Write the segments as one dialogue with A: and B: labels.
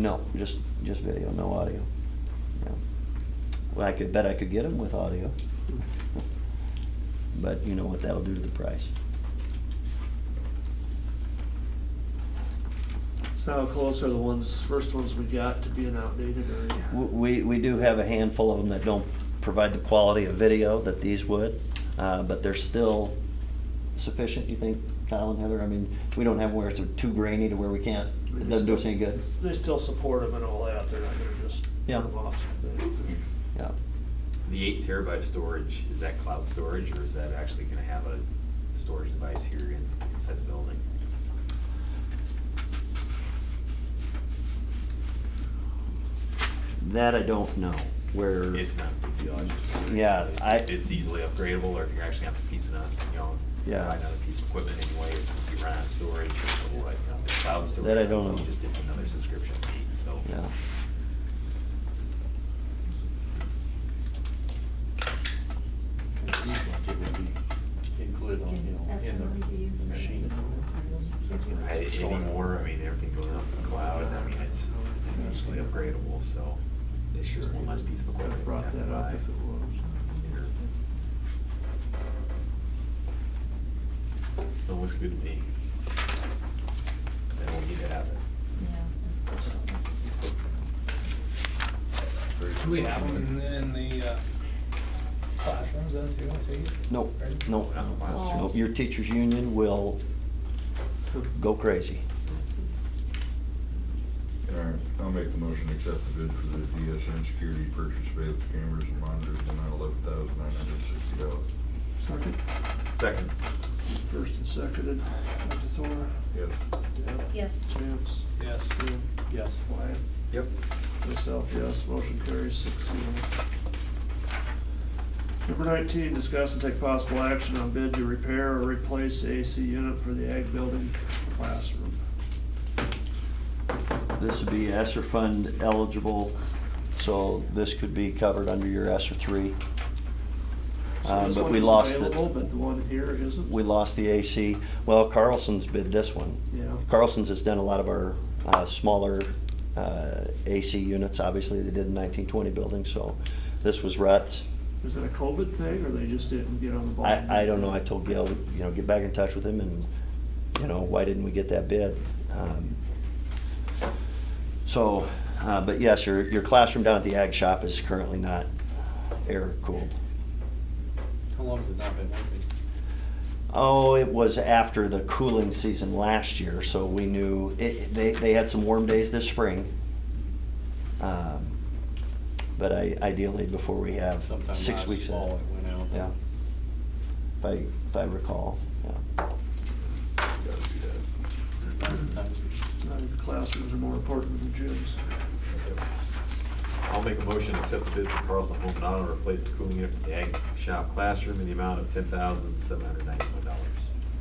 A: No, just, just video, no audio. No. Well, I could bet I could get them with audio. But you know what that'll do to the price.
B: So how close are the ones, first ones we got to being outdated
A: W-
B: or?
A: We, we do have a handful of them that don't provide the quality of video that these would, uh, but they're still sufficient, you think, Kyle and Heather? I mean, we don't have where it's too grainy to where we can't, it doesn't do us any good.
B: They still support them and all that, they're not gonna just
A: Yeah.
B: turn them off.
A: Yeah.
C: The eight terabyte of storage, is that cloud storage or is that actually gonna have a storage device here in- inside the building?
A: That I don't know, where.
C: It's not a big deal. I just wondered
A: Yeah,
C: if
A: I-
C: It's easily upgradable or if you're actually gonna have to piece it up, you know,
A: Yeah.
C: buy another piece of equipment anyway, if you run out of storage, or what, you know, the cloud storage.
A: That I don't
C: obviously
A: know.
C: Just it's another subscription fee, so.
A: Yeah.
D: It would be included on, you know, in the machine.
C: I- Anymore, I mean, everything goes up in the cloud, I mean, it's, it's easily upgradable, so it's just one less piece of
D: Could
C: equipment.
D: have
C: you
D: brought
C: have to
D: that up
C: buy.
D: if it was.
C: It looks good to me. Then we'll need to have it.
E: Do we have them in the uh, classrooms then too, I take it?
A: No, no,
C: Not in the
F: Well,
A: no, your teachers' union will go crazy.
G: All right, I'll make the motion to accept the bid for the DSN security purchase surveillance cameras and monitors in the amount of eleven thousand nine hundred and sixty dollars.
B: Second,
C: Second.
B: first and seconded, Dr. Thor,
G: Yes.
B: Deb,
F: Yes.
B: Chance,
E: Yes.
B: Jim,
D: Yes.
B: Wyatt,
C: Yep.
B: myself, yes, motion carries six zero. Number nineteen, discuss and take possible action on bid to repair or replace AC unit for the ag building classroom.
A: This would be ESSER fund eligible, so this could be covered under your ESSER three.
B: So
A: Um,
B: this
A: But
B: one
A: we
B: is
A: lost
B: available,
A: the,
B: But the one here isn't.
A: we lost the AC. Well, Carlson's bid this one.
B: Yeah.
A: Carlson's has done a lot of our uh, smaller uh, AC units, obviously, they did in nineteen twenty building, so this was Rutz.
B: Is that a COVID thing, or they just didn't get on the ball?
A: I, I don't know, I told Gail, you know, get back in touch with him and, you know, why didn't we get that bid? Um, So, uh, but yes, your, your classroom down at the ag shop is currently not air cooled.
D: How long has it not been working?
A: Oh, it was after the cooling season last year, so we knew, it, they, they had some warm days this spring. Um, But I, ideally before we have
D: Sometime
A: six
D: last
A: weeks. of-
D: fall it went out.
A: Yeah. If I, if I recall, yeah.
G: Gotta be that.
B: I think the classrooms are more important than gyms.
C: I'll make a motion to accept the bid for Carlson Home and Auto to replace the cooling unit for the ag shop classroom in the amount of ten thousand seven hundred ninety-one dollars.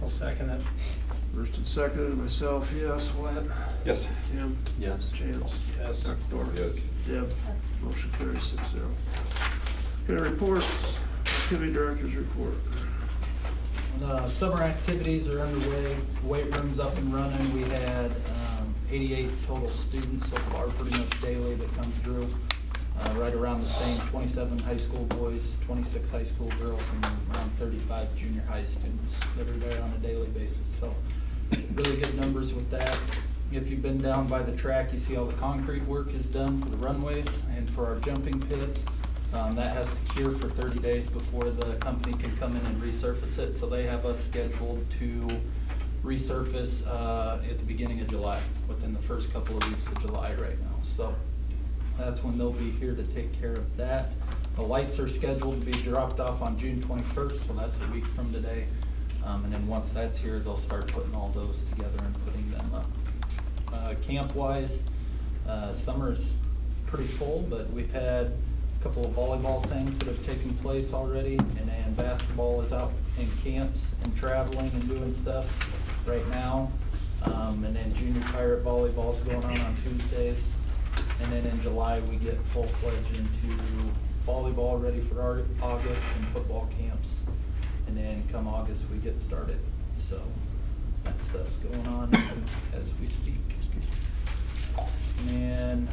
E: I'll second it.
B: First and second, myself, yes, Wyatt,
C: Yes.
B: Tim,
D: Yes.
B: Chance,
E: Yes.
B: Dr. Thor,
G: Yes.
B: Deb, motion carries six zero. Okay, reports, committee directors report.
H: The summer activities are underway, weight room's up and running. We had um, 88 total students so far, pretty much daily that come through, uh, right around the same, 27 high school boys, 26 high school girls, and around 35 junior high students that are there on a daily basis. So really good numbers with that. If you've been down by the track, you see all the concrete work is done for the runways and for our jumping pits. Um, that has to cure for thirty days before the company can come in and resurface it, so they have us scheduled to resurface, uh, at the beginning of July, within the first couple of weeks of July right now, so that's when they'll be here to take care of that. The lights are scheduled to be dropped off on June twenty-first, so that's a week from today. Um, and then once that's here, they'll start putting all those together and putting them up. Uh, camp-wise, uh, summer's pretty full, but we've had a couple of volleyball things that have taken place already, and then basketball is out in camps and traveling and doing stuff right now. Um, and then junior pirate volleyball's going on on Tuesdays. And then in July, we get full-fledged into volleyball ready for our August and football camps. And then come August, we get started. So that stuff's going on as we speak.
E: And